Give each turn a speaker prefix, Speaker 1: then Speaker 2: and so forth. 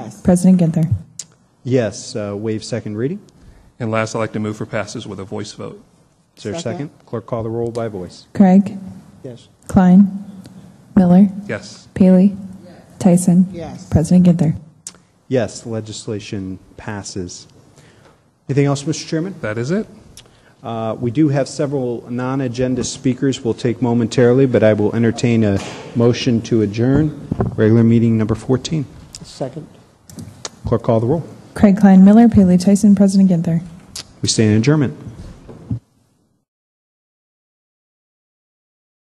Speaker 1: President Ginther.
Speaker 2: Yes, uh, waive second reading.
Speaker 3: And last, I'd like to move for passage with a voice vote.
Speaker 2: Is there a
Speaker 4: Second.
Speaker 2: second? Clerk, call the roll by voice.
Speaker 1: Craig.
Speaker 2: Yes.
Speaker 1: Klein. Miller.
Speaker 3: Yes.
Speaker 1: Paley. Tyson.
Speaker 4: Yes.
Speaker 1: President Ginther.
Speaker 2: Yes, legislation passes. Anything else, Mr. Chairman?
Speaker 3: That is it.
Speaker 2: Uh, We do have several non-agenda speakers we'll take momentarily, but I will entertain a motion to adjourn regular meeting number 14.
Speaker 4: Second.
Speaker 2: Clerk, call the roll.
Speaker 1: Craig Klein, Miller, Paley, Tyson, President Ginther.
Speaker 2: We stay in adjournment.